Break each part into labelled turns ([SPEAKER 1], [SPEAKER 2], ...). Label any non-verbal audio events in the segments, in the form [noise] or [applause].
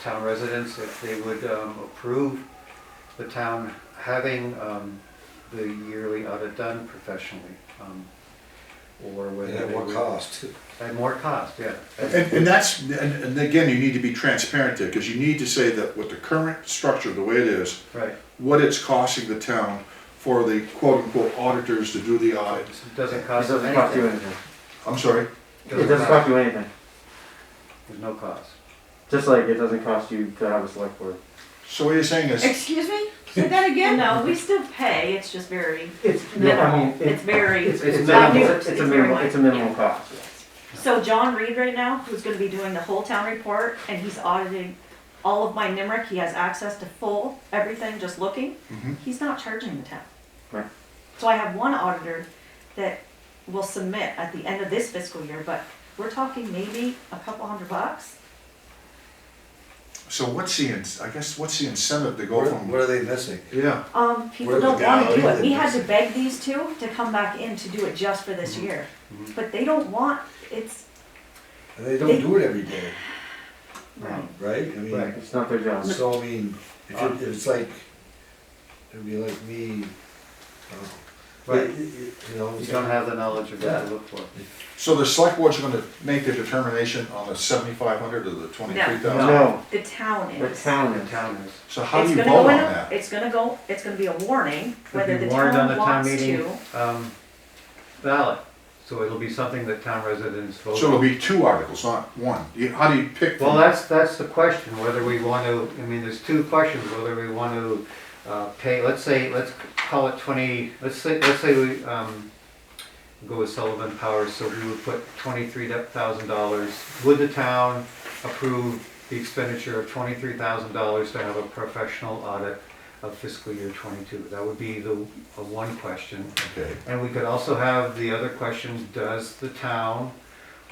[SPEAKER 1] town residents if they would um, approve the town having um, the yearly audit done professionally. um, Or whether.
[SPEAKER 2] At
[SPEAKER 1] they
[SPEAKER 2] what
[SPEAKER 1] would-
[SPEAKER 2] cost?
[SPEAKER 1] At more cost, yeah.
[SPEAKER 3] And, and that's, and, and again, you need to be transparent there, because you need to say that with the current structure, the way it is,
[SPEAKER 1] Right.
[SPEAKER 3] what it's costing the town for the quote-unquote auditors to do the audit.
[SPEAKER 1] It Doesn't
[SPEAKER 4] It
[SPEAKER 1] cost them
[SPEAKER 4] doesn't cost you
[SPEAKER 1] anything.
[SPEAKER 4] anything.
[SPEAKER 3] I'm sorry?
[SPEAKER 4] It doesn't cost you anything.
[SPEAKER 1] There's no cost.
[SPEAKER 4] Just like it doesn't cost you to have a select board.
[SPEAKER 3] So what you're saying is,
[SPEAKER 4] [laughs]
[SPEAKER 5] Excuse me? Say that again? No, we still pay, it's just very,
[SPEAKER 4] It's, I mean,
[SPEAKER 5] minimal.
[SPEAKER 4] it-
[SPEAKER 5] it's very.
[SPEAKER 4] It's, it's
[SPEAKER 5] not
[SPEAKER 4] minimal,
[SPEAKER 5] new,
[SPEAKER 4] it's a
[SPEAKER 5] very
[SPEAKER 4] minimal,
[SPEAKER 5] minor.
[SPEAKER 4] it's a minimal cost.
[SPEAKER 5] So John Reed right now, who's gonna be doing the whole town report, and he's auditing all of my NIMRIC, he has access to full, everything, just looking,
[SPEAKER 3] Mhm.
[SPEAKER 5] he's not charging the town.
[SPEAKER 4] Mm-hmm. Right.
[SPEAKER 5] So I have one auditor that will submit at the end of this fiscal year, but we're talking maybe a couple hundred bucks.
[SPEAKER 3] so what's the, in- I guess, what's the incentive to go
[SPEAKER 2] What
[SPEAKER 3] from,
[SPEAKER 2] what are they missing?
[SPEAKER 3] yeah,
[SPEAKER 5] Um, people
[SPEAKER 2] Where the
[SPEAKER 5] don't wanna do
[SPEAKER 2] gallery
[SPEAKER 5] it, we had
[SPEAKER 2] is.
[SPEAKER 5] to beg these two to come back in to do it just for
[SPEAKER 2] Mm-hmm.
[SPEAKER 5] this year,
[SPEAKER 1] Mhm.
[SPEAKER 5] but they don't want, it's,
[SPEAKER 2] And they don't do it every day,
[SPEAKER 5] right.
[SPEAKER 1] Um,
[SPEAKER 2] right? I mean,
[SPEAKER 1] Right.
[SPEAKER 4] It's not their job.
[SPEAKER 2] so I mean, if it- it's like, it'd be like me, uh,
[SPEAKER 1] Right.
[SPEAKER 2] you- you you know,
[SPEAKER 1] You don't have the knowledge of what to look for.
[SPEAKER 3] so the select board's gonna make the determination on the seventy-five hundred or the twenty-three thousand?
[SPEAKER 4] No,
[SPEAKER 5] The town
[SPEAKER 4] the
[SPEAKER 5] is.
[SPEAKER 4] town
[SPEAKER 1] The
[SPEAKER 4] is.
[SPEAKER 1] town is.
[SPEAKER 3] So how do
[SPEAKER 5] It's
[SPEAKER 3] you vote
[SPEAKER 5] gonna go
[SPEAKER 3] on
[SPEAKER 5] in a-
[SPEAKER 3] that?
[SPEAKER 5] It's gonna go, it's gonna be a warning,
[SPEAKER 1] It'll
[SPEAKER 5] whether
[SPEAKER 1] be
[SPEAKER 5] the
[SPEAKER 1] warned on
[SPEAKER 5] town
[SPEAKER 1] the town
[SPEAKER 5] wants
[SPEAKER 1] meeting
[SPEAKER 5] to.
[SPEAKER 1] um, ballot. So it'll be something that town residents vote.
[SPEAKER 3] So it'll be two articles, not one. You- How do you pick?
[SPEAKER 1] Well,
[SPEAKER 3] from-
[SPEAKER 1] that's, that's the question, whether we want to, I mean, there's two questions, whether we want to uh, pay, let's say, let's call it twenty, let's say, let's say we um, go with Sullivan Powers, so we would put twenty-three thousand dollars. Would the town approve the expenditure of twenty-three thousand dollars to have a professional audit of fiscal year twenty-two? That would be the, uh, one question.
[SPEAKER 3] Okay.
[SPEAKER 1] And we could also have the other question, does the town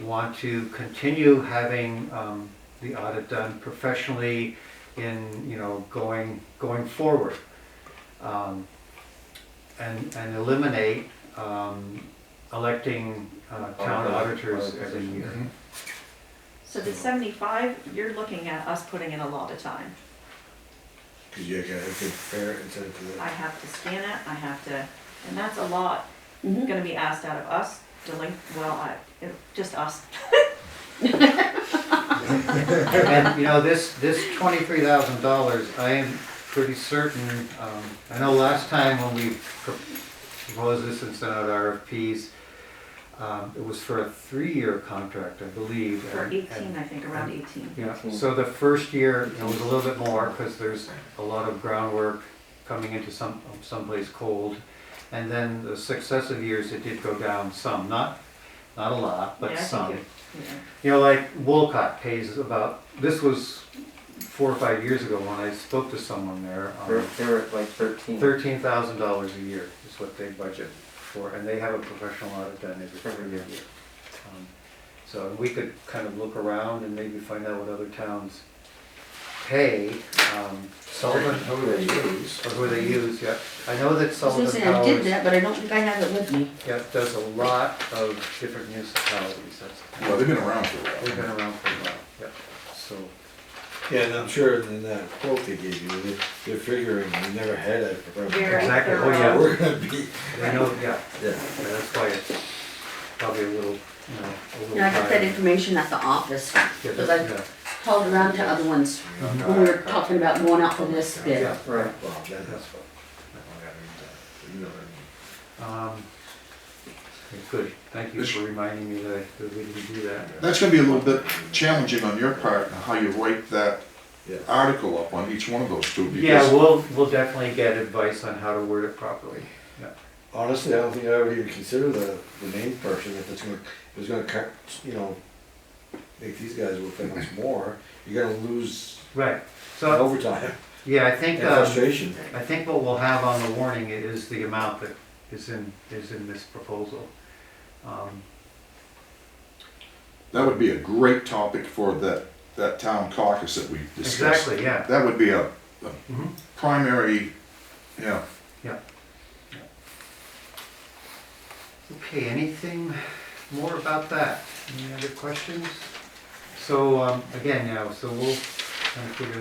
[SPEAKER 1] want to continue having um, the audit done professionally in, you know, going, going forward? Um, And, and eliminate um, electing uh, town auditors every year.
[SPEAKER 3] Mhm.
[SPEAKER 5] So the seventy-five, you're looking at us putting in a lot of time.
[SPEAKER 2] Cause you gotta compare it and send it to
[SPEAKER 5] I
[SPEAKER 2] them.
[SPEAKER 5] have to scan it, I have to, and that's a lot
[SPEAKER 6] Mm-hmm.
[SPEAKER 5] gonna be asked out of us, delinq, well, I, it- just us.
[SPEAKER 1] And, you know, this, this twenty-three thousand dollars, I am pretty certain, um, I know last time when we pro- proposed this and sent out RFPs, um, it was for a three-year contract, I believe.
[SPEAKER 5] For
[SPEAKER 1] and-
[SPEAKER 5] eighteen,
[SPEAKER 1] and-
[SPEAKER 5] I think, around eighteen.
[SPEAKER 1] Yeah, so the first year, it was a little bit more, because there's a lot of groundwork coming into some, someplace cold. And then the successive years, it did go down some, not, not a lot,
[SPEAKER 5] Yeah,
[SPEAKER 1] but
[SPEAKER 5] I think
[SPEAKER 1] some.
[SPEAKER 5] it- yeah.
[SPEAKER 1] You know, like Wolcott pays about, this was four or five years ago when I spoke to someone there.
[SPEAKER 4] They're,
[SPEAKER 1] um,
[SPEAKER 4] they're at like thirteen.
[SPEAKER 1] Thirteen thousand dollars a year is what they budget for, and they have a professional audit done every
[SPEAKER 4] Every
[SPEAKER 1] year.
[SPEAKER 4] year.
[SPEAKER 1] Um, So we could kind of look around and maybe find out what other towns pay, um, Sullivan,
[SPEAKER 2] How would they use?
[SPEAKER 1] or who they use, yeah. I know that
[SPEAKER 6] I was
[SPEAKER 1] Sullivan
[SPEAKER 6] gonna say, I did
[SPEAKER 1] Powers,
[SPEAKER 6] that, but I don't think I have it with me.
[SPEAKER 1] yeah, does a lot of different municipalities,
[SPEAKER 3] Well,
[SPEAKER 1] that's,
[SPEAKER 3] they've been around for a
[SPEAKER 1] they've
[SPEAKER 3] while.
[SPEAKER 1] been around for a while, yeah, so.
[SPEAKER 2] Yeah, and I'm sure in that quote they gave you, they- they're figuring, we never had a
[SPEAKER 5] Very
[SPEAKER 2] professional.
[SPEAKER 1] Exactly. Oh,
[SPEAKER 5] thorough.
[SPEAKER 1] yeah.
[SPEAKER 2] We're gonna be,
[SPEAKER 1] I know, yeah,
[SPEAKER 2] yeah.
[SPEAKER 1] and that's why it's probably a little, you know, a little.
[SPEAKER 6] And I got that
[SPEAKER 1] higher.
[SPEAKER 6] information at the office,
[SPEAKER 1] Yeah,
[SPEAKER 6] because I
[SPEAKER 1] yeah.
[SPEAKER 6] called around to other ones when we were talking about going out for this bid.
[SPEAKER 1] Yeah.
[SPEAKER 4] Right.
[SPEAKER 2] Well, that is fun. I gotta read that. You know what
[SPEAKER 1] Um, Good, thank you for reminding me that that we didn't do that.
[SPEAKER 3] That's gonna be a little bit challenging on your part, how you write that
[SPEAKER 2] I mean? Yeah.
[SPEAKER 3] article up on each one of those two,
[SPEAKER 1] Yeah,
[SPEAKER 3] because
[SPEAKER 1] we'll, we'll definitely get advice on how to word it properly.
[SPEAKER 2] Honestly, I don't think I ever even considered the, the main person if it's gonna, if it's gonna cut, you know, make these guys work that much more, you're gonna lose
[SPEAKER 1] Right, so,
[SPEAKER 2] overtime
[SPEAKER 1] yeah, I think,
[SPEAKER 2] and
[SPEAKER 1] um,
[SPEAKER 2] frustration.
[SPEAKER 1] I think what we'll have on the warning is the amount that is in, is in this proposal. Um,
[SPEAKER 3] that would be a great topic for that, that town caucus that we discussed.
[SPEAKER 1] Exactly, yeah.
[SPEAKER 3] That would be a
[SPEAKER 1] Mhm.
[SPEAKER 3] primary, yeah.
[SPEAKER 1] Okay, anything more about that? Any other questions? So, um, again, now, so we'll trying to figure